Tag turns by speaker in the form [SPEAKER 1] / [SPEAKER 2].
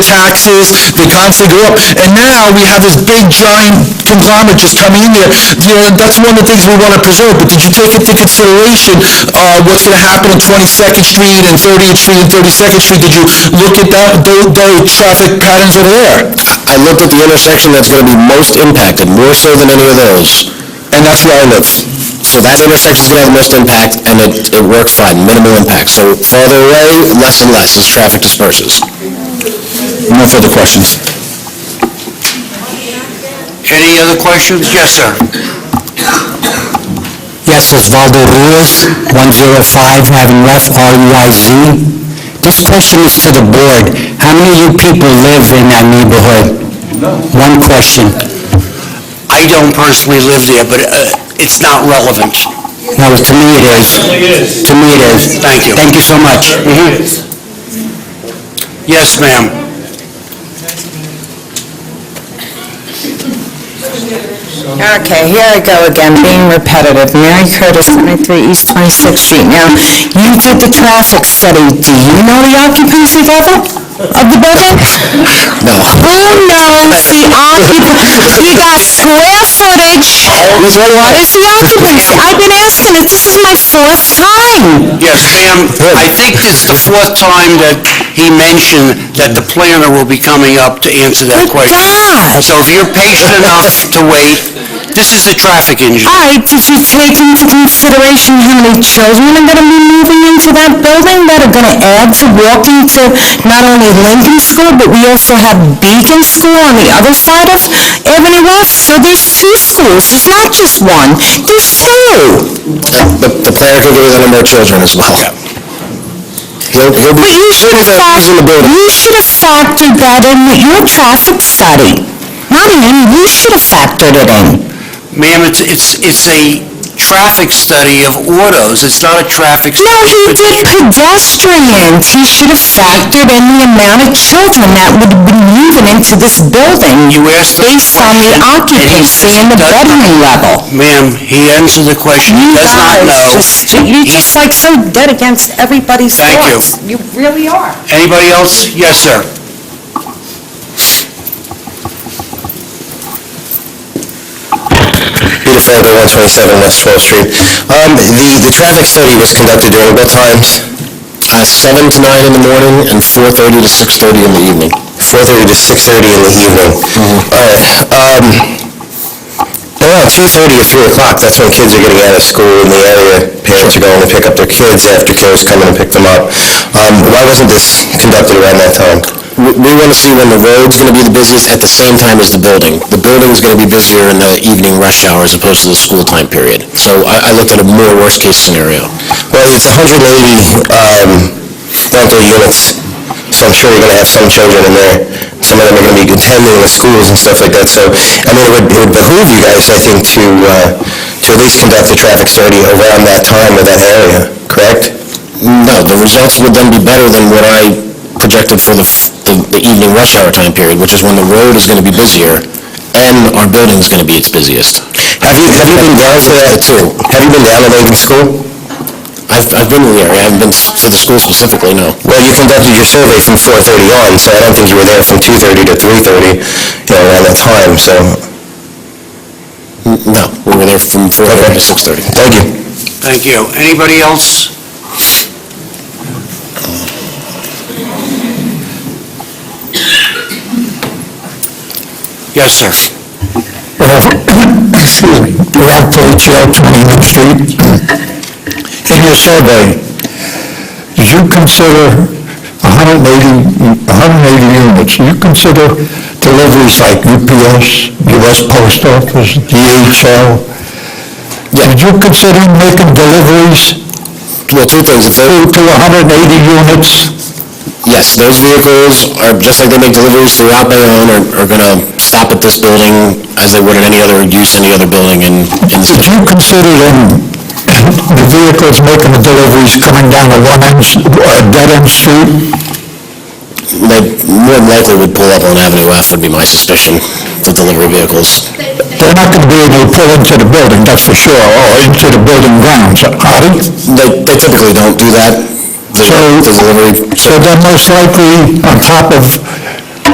[SPEAKER 1] taxes, they constantly go up. And now we have this big giant conglomerate just coming in there. You know, that's one of the things we want to preserve, but did you take into consideration, uh, what's going to happen on Twenty-second Street and Thirtieth Street and Thirty-second Street? Did you look at that, those, those traffic patterns over there?
[SPEAKER 2] I looked at the intersection that's going to be most impacted, more so than any of those.
[SPEAKER 1] And that's where I live.
[SPEAKER 2] So that intersection's going to have the most impact, and it, it worked fine, minimal impact. So farther away, less and less as traffic disperses.
[SPEAKER 1] No further questions.
[SPEAKER 3] Any other questions? Yes, sir.
[SPEAKER 4] Yes, it's Valdo Ruiz, 105 Haven Left, R-U-I-Z. This question is to the board. How many of you people live in that neighborhood? One question.
[SPEAKER 3] I don't personally live there, but uh, it's not relevant.
[SPEAKER 4] No, to me it is. To me it is.
[SPEAKER 3] Thank you.
[SPEAKER 4] Thank you so much.
[SPEAKER 3] Yes, ma'am.
[SPEAKER 5] Okay, here I go again, being repetitive. Mary Curtis, 23 East 26th Street. Now, you did the traffic study. Do you know the occupancy level of the building?
[SPEAKER 4] Mm-hmm.
[SPEAKER 2] No.
[SPEAKER 5] Who knows the occupancy? You got square footage. What is the occupancy? I've been asking it. This is my fourth time.
[SPEAKER 3] Yes, ma'am. I think it's the fourth time that he mentioned that the planner will be coming up to answer that
[SPEAKER 5] Good
[SPEAKER 3] question.
[SPEAKER 5] God.
[SPEAKER 3] So if you're patient enough to wait, this is a traffic engineer.
[SPEAKER 5] All right, did you take into consideration how many children are gonna be moving into that building that are gonna add to walking to not only Lincoln School, but we also have Beacon School on the other side of Avenue West? So there's two schools, there's not just one, there's two.
[SPEAKER 2] The, the planner could give you the number of children as well. He'll, he'll be,
[SPEAKER 5] But you should have
[SPEAKER 2] Children
[SPEAKER 5] fac-
[SPEAKER 2] in the building.
[SPEAKER 5] you should have factored that in with your traffic study. Not in, you should have factored it in.
[SPEAKER 3] Ma'am, it's, it's, it's a traffic study of autos. It's not a traffic
[SPEAKER 5] No,
[SPEAKER 3] study.
[SPEAKER 5] he
[SPEAKER 3] of
[SPEAKER 5] did pedestrians. He should have factored in the amount of children that would have been moving into this building
[SPEAKER 3] You asked the
[SPEAKER 5] based on the
[SPEAKER 3] question, and he
[SPEAKER 5] occupancy and the
[SPEAKER 3] does not-
[SPEAKER 5] bedroom level.
[SPEAKER 3] Ma'am, he answered the question. He
[SPEAKER 5] You
[SPEAKER 3] does not know.
[SPEAKER 5] guys, just,
[SPEAKER 3] He-
[SPEAKER 5] you're just like so dead against everybody's
[SPEAKER 3] Thank you.
[SPEAKER 5] thoughts. You really are.
[SPEAKER 3] Anybody else? Yes, sir.
[SPEAKER 2] Peter Flandre, 127 West 12th Street. Um, the, the traffic study was conducted during what times? Uh, 7 to 9 in the morning and 4:30 to 6:30 in the evening. 4:30 to 6:30 in the evening. All right. Um, around 2:30 to 3 o'clock, that's when kids are getting out of school in the area. Parents are going to pick up their kids, aftercare's coming to pick them up. Um, why wasn't this conducted around that time? We, we want to see when the road's going to be the busiest at the same time as the building. The building's going to be busier in the evening rush hour as opposed to the school time period. So I, I looked at a more worst-case scenario. Well, it's 180, um, rental units, so I'm sure you're gonna have some children in there. Some of them are gonna be attending the schools and stuff like that, so, I mean, it would, it would behoove you guys, I think, to, uh, to at least conduct the traffic study around that time or that area, correct? No, the results would then be better than what I projected for the, the evening rush hour time period, which is when the road is gonna be busier and our building's gonna be its busiest. Have you, have you been down to that too? Have you been down to Lincoln School? I've, I've been in the area, I haven't been s- to the school specifically, no. Well, you conducted your survey from 4:30 on, so I don't think you were there from 2:30 to 3:30, you know, around that time, so... No, we were there from 4:30 to 6:30. Thank you.
[SPEAKER 3] Thank you. Anybody else? Yes, sir.
[SPEAKER 1] Excuse me, Ralph Paluccio, 29th Street. In your survey, did you consider 180, 180 units, do you consider deliveries like UPS, US Post Office, DHL? Did you consider making deliveries
[SPEAKER 2] Well, two things, if
[SPEAKER 1] to
[SPEAKER 2] those,
[SPEAKER 1] to 180 units?
[SPEAKER 2] yes, those vehicles are, just like they make deliveries throughout Bayonne, are, are gonna stop at this building as they would at any other use, any other building in, in the
[SPEAKER 1] Did
[SPEAKER 2] city.
[SPEAKER 1] you consider them, the vehicles making the deliveries coming down a one-end, s- a dead-end uh, street?
[SPEAKER 2] They more than likely would pull up on Avenue F, would be my suspicion, for delivery vehicles.
[SPEAKER 1] They're not going to be able to pull into the building, that's for sure, or into the building grounds, are they?
[SPEAKER 2] They, they typically don't do that. The
[SPEAKER 1] So-
[SPEAKER 2] the delivery,
[SPEAKER 1] So they're most likely on top of